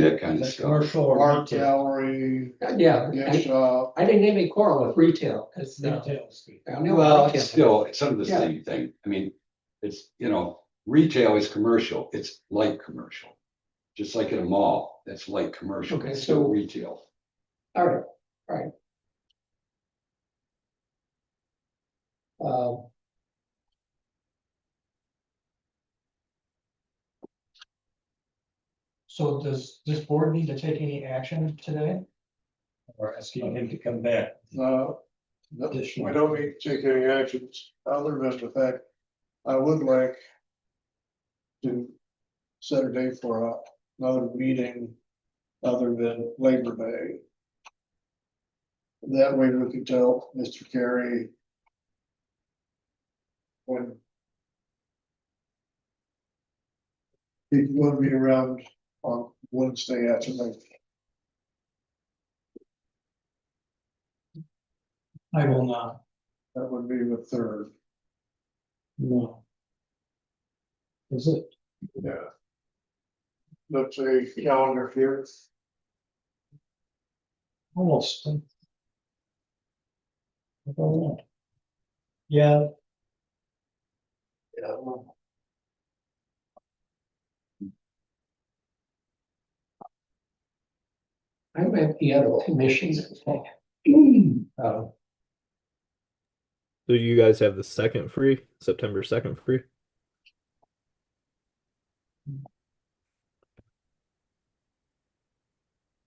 that kind of Like stuff. commercial or art retail. gallery, Uh, Yeah, gift I, shop. I didn't have any quarrel with retail, cause. uh, Retail street. I know Well, retail. it's still, it's under the Yeah. same thing. I mean, it's, you know, retail is commercial, it's light commercial. Just like in a mall, that's light commercial, Okay, it's still so- retail. All right, all So does this board need to take any action today? Or asking him to come back. No, no, Additional. we uh, don't need to take any actions other than the fact I would like to set a date for a- another meeting other than Labor Day. That way we can tell Mr. Carey when he will be around on Wednesday after Labor. I will not. That would be the third. No. Is it? Yeah. Let's say calendar here, Almost. I don't know. Yeah. Yeah. right, I'm at the other commissions. Uh, Do you guys have the second free? September second free?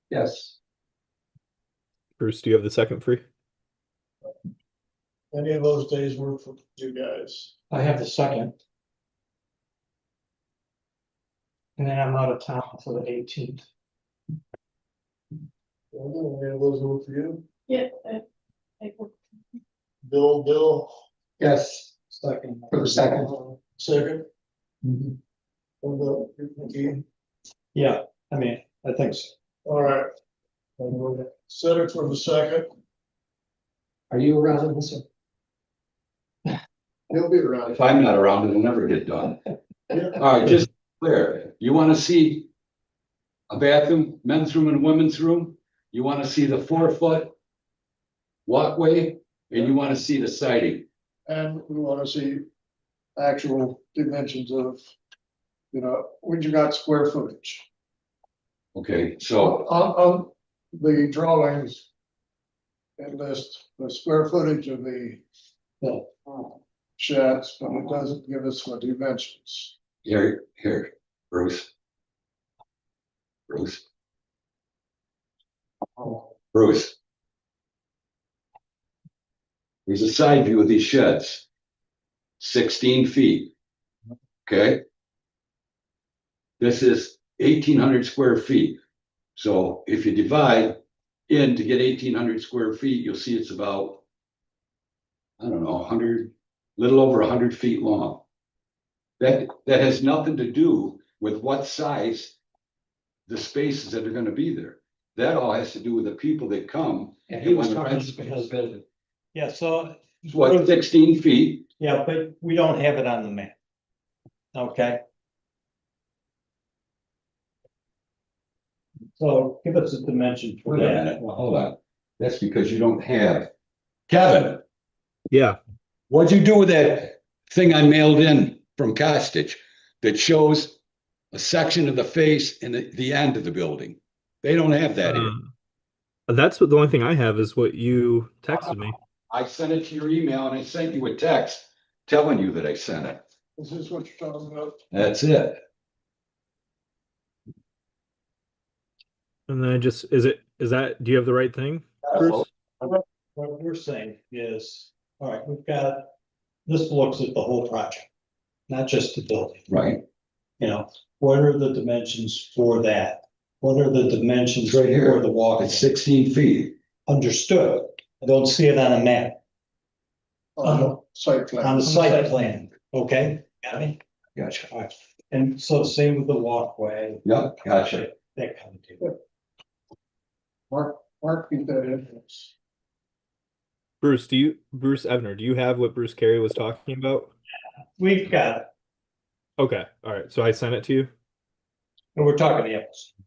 yes, Bruce, do you have the second free? any of those days work for you guys? I have the second. And then I'm out of town for the eighteenth. Any of those work for you? Yeah, I, I work Bill, Bill, yes, second. for the second. Second, Mm-hmm. Mhm. from the, McKee. Yeah, I mean, I think so. all right, set it for the second, Are you around, Mr.? he'll be around. If I'm not around, it'll never get done. All right, just clear, you wanna see a bathroom, men's room and women's room? You wanna see the four foot walkway and you wanna see the siding? And we wanna see actual dimensions of, you know, when you got square footage. Okay, On, so, on the drawings. It lists the square footage of the. uh, Sheds, but it doesn't give us what dimensions. here, here, Bruce. Bruce, Bruce. There's a side view of these sheds. Sixteen feet. Okay? This is eighteen hundred square feet. So if you divide in to get eighteen hundred square feet, you'll see it's about. I don't know, hundred, little over hundred feet long. That, that has nothing to do with what size. The spaces that are gonna be there. That all has to do with the people that come. And he was talking because of Yeah, so, It's What, sixteen feet? yeah, but we don't have it on the map. Okay. So give us a dimension for Wait a that. minute, well, hold on. That's because you don't have. Kevin, Yeah. what'd you do with that thing I mailed in from Costitch that shows a section of the face and the, the end of the building? They don't have that Hmm. in. Uh, that's what the only thing I have is what you texted me. I sent it to your email and I sent you a text telling you that I sent it. Is this what you're talking about? That's it. And then I just is it is that do you have the right thing? Bruce? What we're saying is, all right, we've got, this looks at the whole project. Not just the building. Right, you know, what are the dimensions for that? What are the dimensions It's right here. for the walk? it's sixteen feet. Understood. I don't see it on a map, On the site Uh, on plan, the site plan, okay? Got me? Gotcha. All right. And so same with the walkway, Yep, gotcha. that kind of deal. Mark, Mark, keep that in. Bruce, do you Bruce Evner, do you have what Bruce Carey was talking about? We've got, it, Okay. All right. So I sent it to you. and we're talking apples.